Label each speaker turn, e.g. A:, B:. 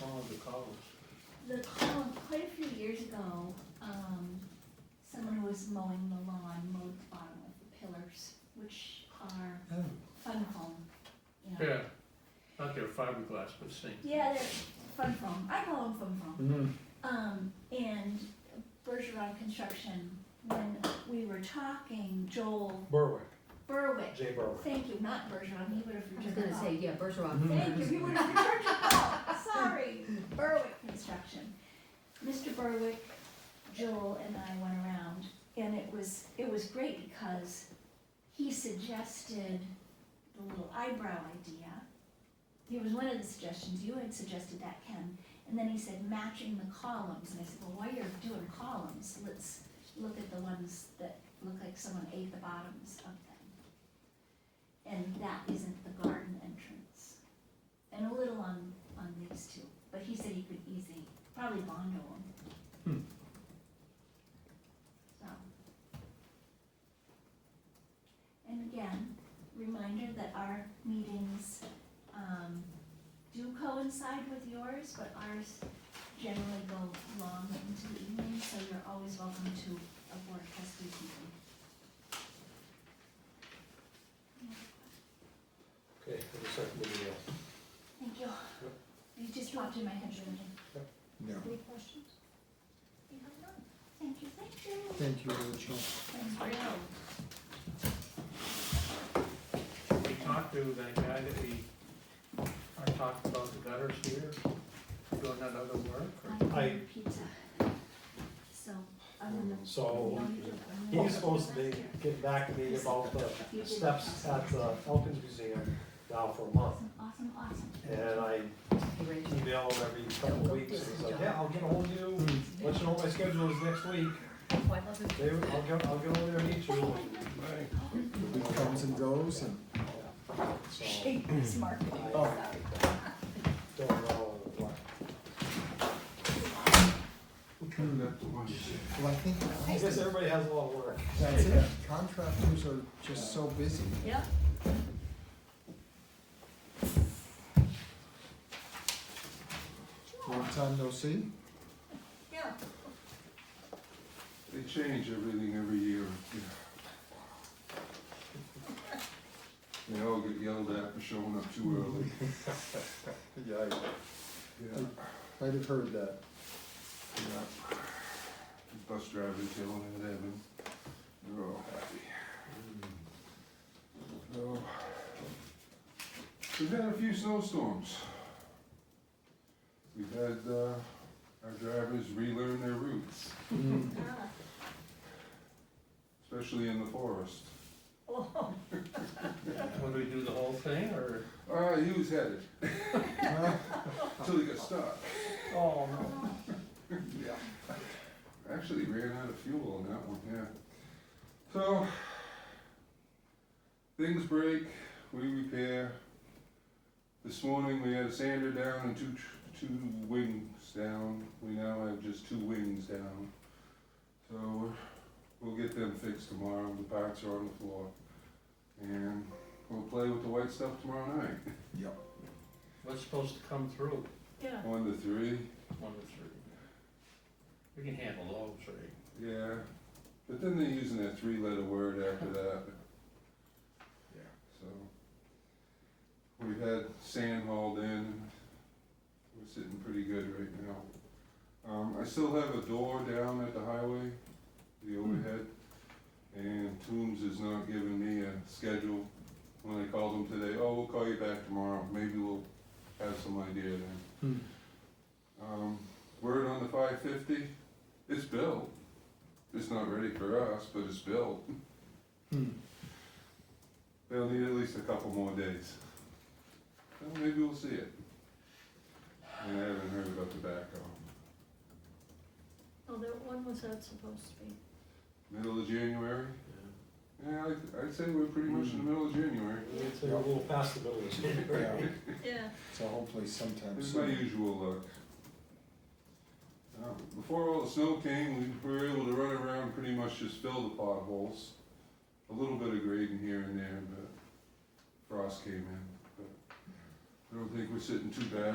A: one of the columns?
B: Um, The column, quite a few years ago, um, someone who was mowing the lawn mowed the bottom of the pillars, which are
A: Oh.
B: fun foam, you know.
C: Yeah, not their fiberglass, but same.
B: Yeah, they're fun foam, I call them fun foam.
A: Mm,
B: Um, and Bergeron Construction, when we were talking, Joel
A: Berwick,
B: Berwick,
A: Jay Berwick.
B: thank you, not Bergeron, he would have
D: I was
B: returned the
D: gonna
B: call.
D: say, yeah, Bergeron.
C: Mm-hmm.
A: Mhm.
B: Thank you, he would have returned your call, sorry, Berwick Construction. Mr. Berwick, Joel and I went around, and it was, it was great because he suggested the little eyebrow idea. It was one of the suggestions, you had suggested that, Ken, and then he said matching the columns, and I said, well, while you're doing columns, let's look at the ones that look like someone ate the bottoms of them. And that isn't the garden entrance. And a little on, on these two, but he said he could easy, probably bondo
A: Hmm.
B: them. So. And again, reminder that our meetings, um, do coincide with yours, but ours generally go long into the evening, so you're always welcome to a board trustee meeting.
A: Okay, for the second video.
B: Thank you. You just dropped in my head, Jordan.
A: Yeah.
B: Any questions? You have none? Thank you, thank you.
A: Thank you, Rachel.
B: Thanks, Rachel.
C: We talked to that guy that we are talking about the gutters here, doing that other work. or-
B: I
A: I-
B: ordered pizza. So, other than.
E: So
B: No, you didn't. I know
E: he's supposed to
B: you did
E: be
B: last year.
E: getting back to me about
B: You
E: the
B: did
E: steps
B: last
E: at the Elkins Museum now for a month.
B: Awesome, awesome, awesome.
E: And I email him every couple of weeks and he's like, yeah, I'll get ahold of you, let you know what my schedule is next week. David, I'll get, I'll get over there and meet you.
F: It comes and goes and.
E: So
B: marketing.
E: I don't know what.
F: Well, I think
E: I guess everybody has a lot of work.
F: that's it. Contractors are just so busy.
B: Yep.
F: Long time no see.
B: Yeah.
G: They change everything every year. They all get yelled at for showing up too early.
F: Yeah, I
G: Yeah,
F: might have heard that.
G: yeah. The Bus drivers yelling at Evan. They're all happy. So, we've had a few snowstorms. We've had, uh, our drivers relearn their routes,
F: Mm.
G: especially in the forest.
C: Would we do the whole thing, or?
G: Uh, he was headed, till he got stuck.
C: Oh, no.
G: Yeah. Actually ran out of fuel on that one, yeah. So, things break, we repair. This morning we had a sander down and two, tr- two wings down. We now have just two wings down. So, we'll get them fixed tomorrow, the parts are on the floor. And we'll play with the white stuff tomorrow night,
C: What's supposed to come through,
B: Yeah.
G: one to three.
C: one of three? We can handle those, right?
G: Yeah, but then they're using that three-letter word after that. Yeah. So, we've had sand hauled in, we're sitting pretty good right now. Um, I still have a door down at the highway, the overhead, and Toombs is not giving me a schedule. When I called them today, oh, we'll call you back tomorrow, maybe we'll have some idea then.
A: Hmm.
G: Um, word on the five fifty, it's built. It's not ready for us, but it's built.
A: Hmm.
G: They'll need at least a couple more days. Well, maybe we'll see it. And I haven't heard about the backhoe.
H: Oh, there, when was that supposed to be?
G: Middle of January? Yeah, I'd, I'd say we're pretty much in the middle of January.
E: It's a little past the middle of January.
F: Yeah,
H: Yeah,
F: so hopefully sometime
G: It's my
F: soon.
G: usual luck. Uh, Before all the snow came, we were able to run around, pretty much just fill the potholes. A little bit of grading here and there, but frost came in. But I don't think we're sitting too bad